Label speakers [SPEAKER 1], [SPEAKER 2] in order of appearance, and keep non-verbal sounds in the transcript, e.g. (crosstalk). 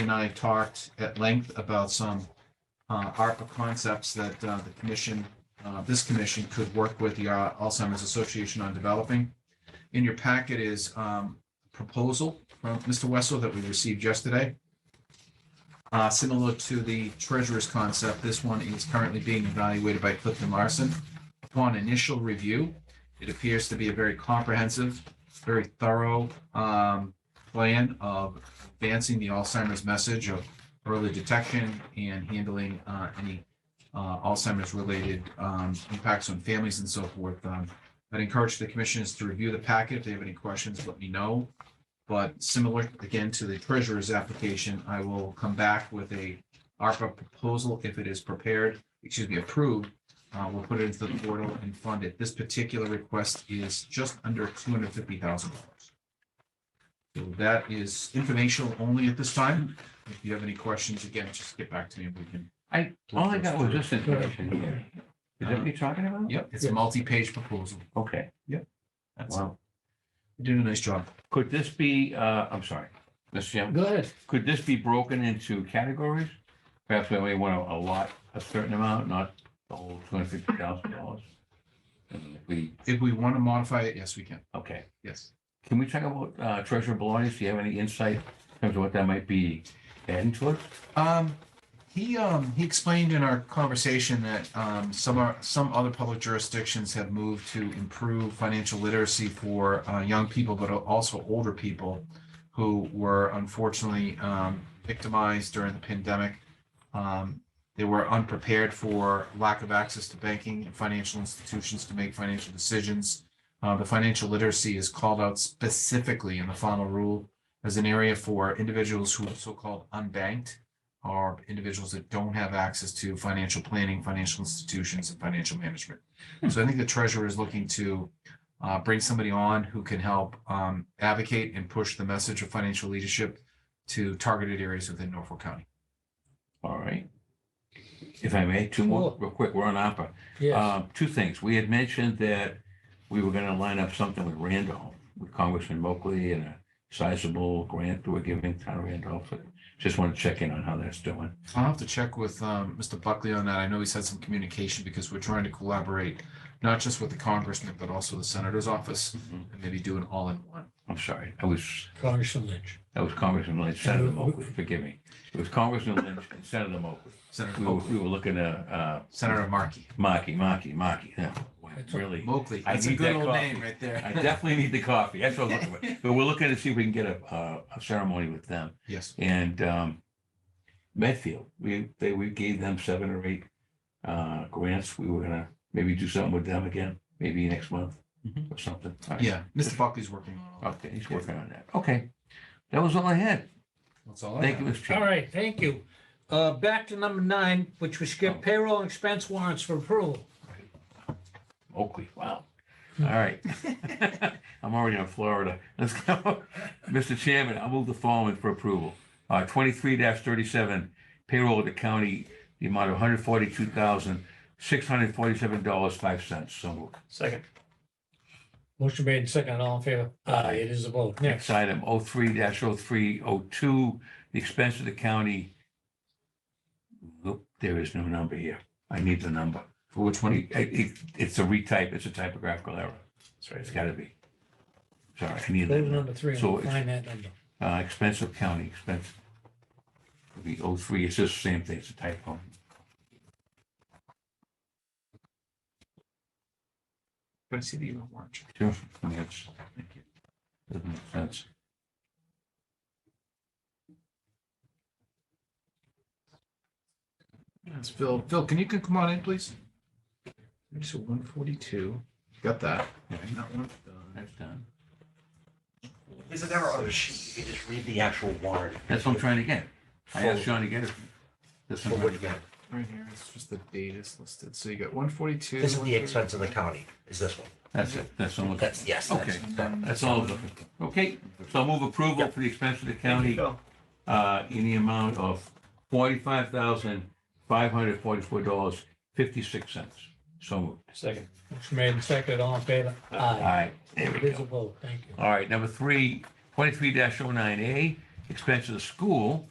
[SPEAKER 1] and I talked at length about some uh, ARPA concepts that uh, the commission, uh, this commission could work with the uh, Alzheimer's Association on developing. In your packet is um, proposal from Mr. Wessel that we received yesterday. Uh, Similar to the treasurer's concept, this one is currently being evaluated by Clifton Larson. Upon initial review, it appears to be a very comprehensive, very thorough um, plan of advancing the Alzheimer's message of early detection and handling uh, any uh, Alzheimer's-related um, impacts on families and so forth. Um, I'd encourage the commissioners to review the packet. If they have any questions, let me know. But similar, again, to the treasurer's application, I will come back with a ARPA proposal if it is prepared, excuse me, approved. Uh, We'll put it into the portal and fund it. This particular request is just under two hundred fifty thousand dollars. So that is informational only at this time. If you have any questions, again, just get back to me if we can.
[SPEAKER 2] I, all I got was this information here. Is that
[SPEAKER 1] Uh,
[SPEAKER 2] what you're talking about?
[SPEAKER 1] Yep, it's a multi-page proposal.
[SPEAKER 2] Okay,
[SPEAKER 1] That's,
[SPEAKER 2] wow.
[SPEAKER 1] you did a nice job.
[SPEAKER 2] Could this be, uh, I'm sorry, Mr. Chairman,
[SPEAKER 3] Go ahead.
[SPEAKER 2] could this be broken into categories? Perhaps we only want to allot a certain amount, not the whole two hundred fifty thousand dollars. We,
[SPEAKER 1] If we want to modify it, yes, we can.
[SPEAKER 2] okay,
[SPEAKER 1] Yes.
[SPEAKER 2] can we talk about uh, Treasurer Bellotti? Do you have any insight in terms of what that might be adding to it?
[SPEAKER 1] Um, he, um, he explained in our conversation that, um, some are, some other public jurisdictions have moved to improve financial literacy for, uh, young people, but also older people who were unfortunately, um, victimized during the pandemic. Um, they were unprepared for lack of access to banking and financial institutions to make financial decisions. Uh, the financial literacy is called out specifically in the final rule as an area for individuals who are so-called unbanked are individuals that don't have access to financial planning, financial institutions, and financial management. So I think the treasurer is looking to uh, bring somebody on who can help um, advocate and push the message of financial leadership to targeted areas within Norfolk County.
[SPEAKER 2] All right. If I may, two more,
[SPEAKER 3] Sure.
[SPEAKER 2] real quick, we're on ARPA.
[SPEAKER 3] Yes.
[SPEAKER 2] Uh, Two things. We had mentioned that we were going to line up something with Randolph, with Congressman Moakley and a sizable grant that we're giving town of Randolph. But Just want to check in on how that's doing.
[SPEAKER 1] I'll have to check with um, Mr. Buckley on that. I know he's had some communication because we're trying to collaborate, not just with the congressman, but also the senator's office, and maybe do an all-in-one.
[SPEAKER 2] I'm sorry, I was,
[SPEAKER 3] Congressman Lynch.
[SPEAKER 2] that was Congressman Lynch, Senator Moakley, forgive me. It was Congressman Lynch and Senator Moakley.
[SPEAKER 1] Senator
[SPEAKER 2] We were,
[SPEAKER 1] Moakley,
[SPEAKER 2] we were looking at uh,
[SPEAKER 1] Senator Markey,
[SPEAKER 2] Markey, Markey, Markey. Yeah, wow,
[SPEAKER 3] That's
[SPEAKER 2] Really,
[SPEAKER 1] Moakley.
[SPEAKER 2] I
[SPEAKER 1] That's a
[SPEAKER 2] need
[SPEAKER 1] good
[SPEAKER 2] that
[SPEAKER 1] old
[SPEAKER 2] coffee.
[SPEAKER 1] name right there.
[SPEAKER 2] I definitely need the coffee. That's what I'm looking for. But we're looking to see if we can get a, uh, a ceremony with them.
[SPEAKER 1] Yes.
[SPEAKER 2] And um, Medfield, we, they, we gave them seven or eight uh, grants. We were gonna maybe do something with them again, maybe next month
[SPEAKER 1] Mhm.
[SPEAKER 3] Mm-hmm.
[SPEAKER 2] or something. All right.
[SPEAKER 1] Yeah, Mr. Buckley's working on all that.
[SPEAKER 2] Okay, he's working on that. Okay. That was all I had.
[SPEAKER 1] That's all I
[SPEAKER 2] Thank you,
[SPEAKER 1] have.
[SPEAKER 2] Mr.
[SPEAKER 3] All
[SPEAKER 2] Chairman.
[SPEAKER 3] right, thank you. Uh, back to number nine, which we skipped payroll and expense warrants for approval.
[SPEAKER 2] Oakley, wow.
[SPEAKER 3] Hmm.
[SPEAKER 2] All right. (laughs) I'm already on Florida. Let's go. (laughs) Mr. Chairman, I move the following for approval. Uh, twenty-three thirty-seven payroll to county, the amount of one hundred forty-two thousand, six hundred forty-seven dollars, five cents. So moved.
[SPEAKER 3] Second. Motion made and second, all in favor? Aye, it is a vote. Next.
[SPEAKER 2] Next item, oh three dash oh three oh two, the expense of the county. Nope, there is no number here. I need the number.
[SPEAKER 1] For which one?
[SPEAKER 2] It- it- it's a retype, it's a typographical error. It's gotta be. Sorry, I need that.
[SPEAKER 3] Go to
[SPEAKER 2] number.
[SPEAKER 3] number three and
[SPEAKER 2] So
[SPEAKER 3] we'll
[SPEAKER 2] it's-
[SPEAKER 3] find that number.
[SPEAKER 2] Uh, expense of county, expense. It'll be oh three, it's just the same thing, it's a typo.
[SPEAKER 1] Can I see the email warrant?
[SPEAKER 2] Sure. I mean, it's- thank you. Doesn't make sense.
[SPEAKER 1] That's Phil. Phil, can you c- come on in, please? So one forty-two, got that.
[SPEAKER 2] Right.
[SPEAKER 1] That one's done.
[SPEAKER 2] That's done.
[SPEAKER 4] Is it ever on the sheet? You can just read the actual warrant.
[SPEAKER 2] That's what I'm trying to get. I asked
[SPEAKER 4] Full-
[SPEAKER 2] Sean to get it. This
[SPEAKER 4] full
[SPEAKER 2] one,
[SPEAKER 4] what you got.
[SPEAKER 1] Right here, it's just the date is listed. So you got one forty-two.
[SPEAKER 4] This is the expense of the county, is this one?
[SPEAKER 2] that's it, that's the one.
[SPEAKER 4] That's, yes, that's.
[SPEAKER 2] Okay.
[SPEAKER 4] that-
[SPEAKER 2] That's all. of them. Okay, so I'll move approval for the expense of the county uh, in the amount of forty-five thousand, five hundred forty-four dollars, fifty-six cents. So moved.
[SPEAKER 3] Second. Motion made and second, all in favor?
[SPEAKER 2] All
[SPEAKER 3] Aye,
[SPEAKER 2] right, there we
[SPEAKER 3] it is a
[SPEAKER 2] go.
[SPEAKER 3] vote. Thank you.
[SPEAKER 2] All right, number three, twenty-three dash oh nine A, expense of the school